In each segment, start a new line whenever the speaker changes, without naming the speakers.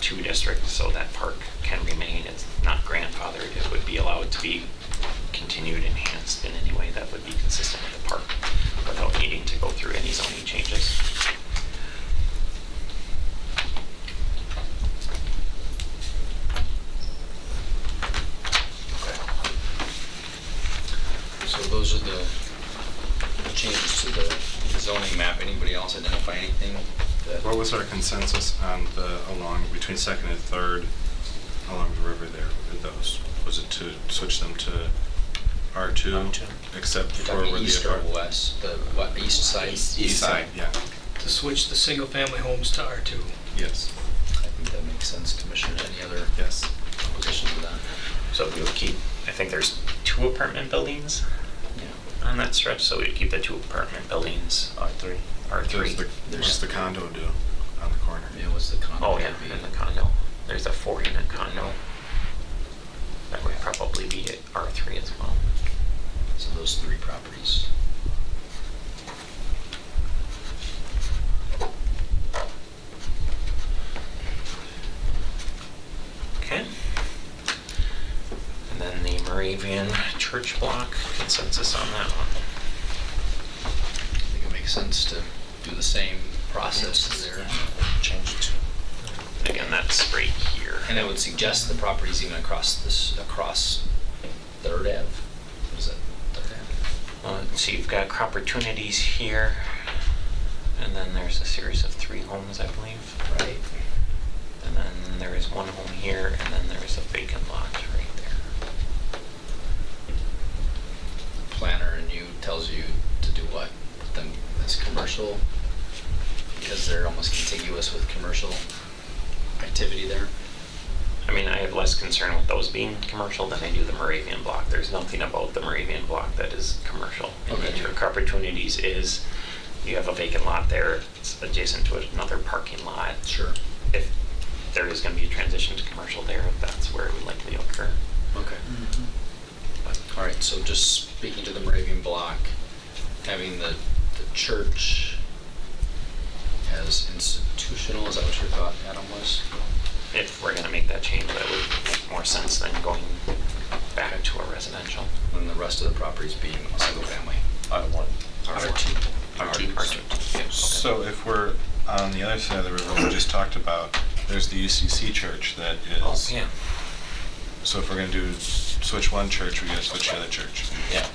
two district, so that park can remain, it's not grandfathered, it would be allowed to be continued, enhanced in any way that would be consistent with the park without needing to go through any zoning changes.
So those are the changes to the zoning map. Anybody else identify anything? that-
What was our consensus on the, along, between second and third, along the river there, with those? Was it to switch them to R2, except
You're
for
talking
where the
east or
apart-
E west, the what, east side?
East side, yeah,
to switch the single-family homes to R2.
yes,
I think that makes sense, Commissioner. Any other
yes.
opposition to that?
So we would keep, I think there's two apartment buildings
Yeah.
on that stretch, so we'd keep the two apartment buildings. uh, R3.
There's the,
R3.
there's the condo do on the corner.
Yeah, what's the condo?
Oh, yeah,
gonna be?
and the condo. There's a four unit condo. That would probably be at R3 as well.
So those three properties.
Okay. And then the Moravian church block, consensus on that one.
I think it makes sense to do the same process there. Change it.
And Again, that's right here.
And I would suggest the properties even across this, across Third Ave. What is that, Third Ave?
Uh, So you've got opportunities here, and then there's a series of three homes, I believe.
Right.
And then there is one home here, and then there is a vacant lot right there.
Planner and you tells you to do what? Put them as commercial? Because they're almost contiguous with commercial activity there?
I mean, I have less concern with those being commercial than I do the Moravian block. There's nothing about the Moravian block that is commercial. in
Okay.
nature. Car opportunities is, you have a vacant lot there, it's adjacent to another parking lot.
Sure.
If there is gonna be a transition to commercial there, that's where it would likely occur.
Okay. All right, so just speaking to the Moravian block, having the, the church as institutional, is that what your thought, Adam, was?
If we're gonna make that change, that would make more sense than going back to a residential.
And the rest of the properties being single family.
R1.
R2.
R2. R2.
Yeah.
So if we're on the other side of the river, we just talked about, there's the UCC church that
Oh,
is.
yeah.
So if we're gonna do, switch one church, we gotta switch the other church.
Yeah.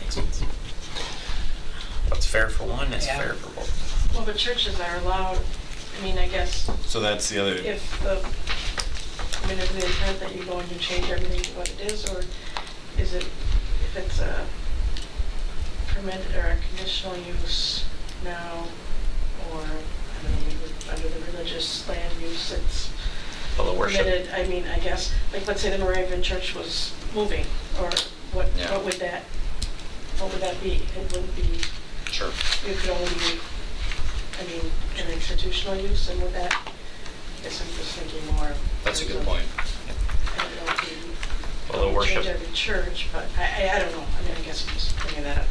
Makes sense. What's fair for one is
Yeah.
fair for both.
Well, but churches are allowed, I mean, I guess
So that's the other.
if the, I mean, is the intent that you go and you change everything to what it is, or is it, if it's a permitted or a conditional use now, or, I don't know, we would- under the religious land use, it's
Well, the
permitted,
worship,
I mean, I guess, like, let's say the Moravian church was moving, or what,
Yeah.
what would that, what would that be? It wouldn't be
Sure.
it could only be, I mean, an institutional use, and with that, I guess I'm just thinking more. of-
That's a good point.
I don't know if you
well, the
change
worship,
every church, but I, I, I don't know, I mean, I guess I'm just bringing that up.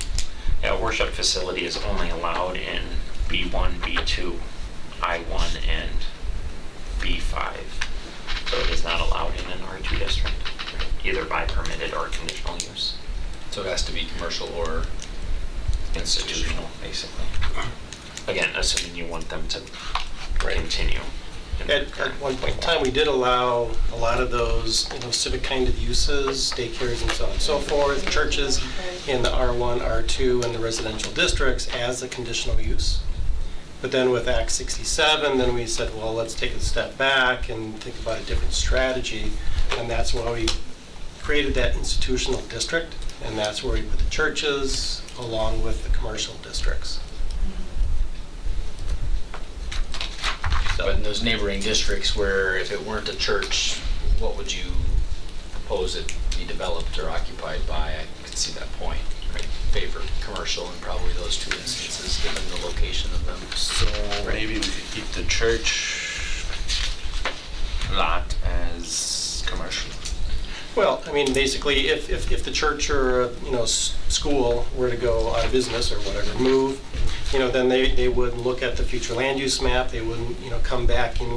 yeah, worship facility is only allowed in B1, B2, I1, and B5. So it is not allowed in an R2 district, either by permitted or conditional use.
So it has to be commercial or
Institutional, basically. Again, assuming you want them to continue. in their
At, at
current
one point
form.
in time, we did allow a lot of those, you know, civic kind of uses, daycares and so on and so forth, churches in the R1, R2, and the residential districts as a conditional use. But then with Act 67, then we said, well, let's take a step back and think about a different strategy. And that's why we created that institutional district, and that's where we put the churches along with the commercial districts.
So in those neighboring districts where if it weren't a church, what would you propose it be developed or occupied by? I could see that point. I Favor commercial in probably those two instances, given the location of them.
So
Right.
maybe we could keep the church lot as commercial.
Well, I mean, basically, if, if, if the church or, you know, s- school were to go out of business or whatever, move, you know, then they, they would look at the future land use map, they wouldn't, you know, come back and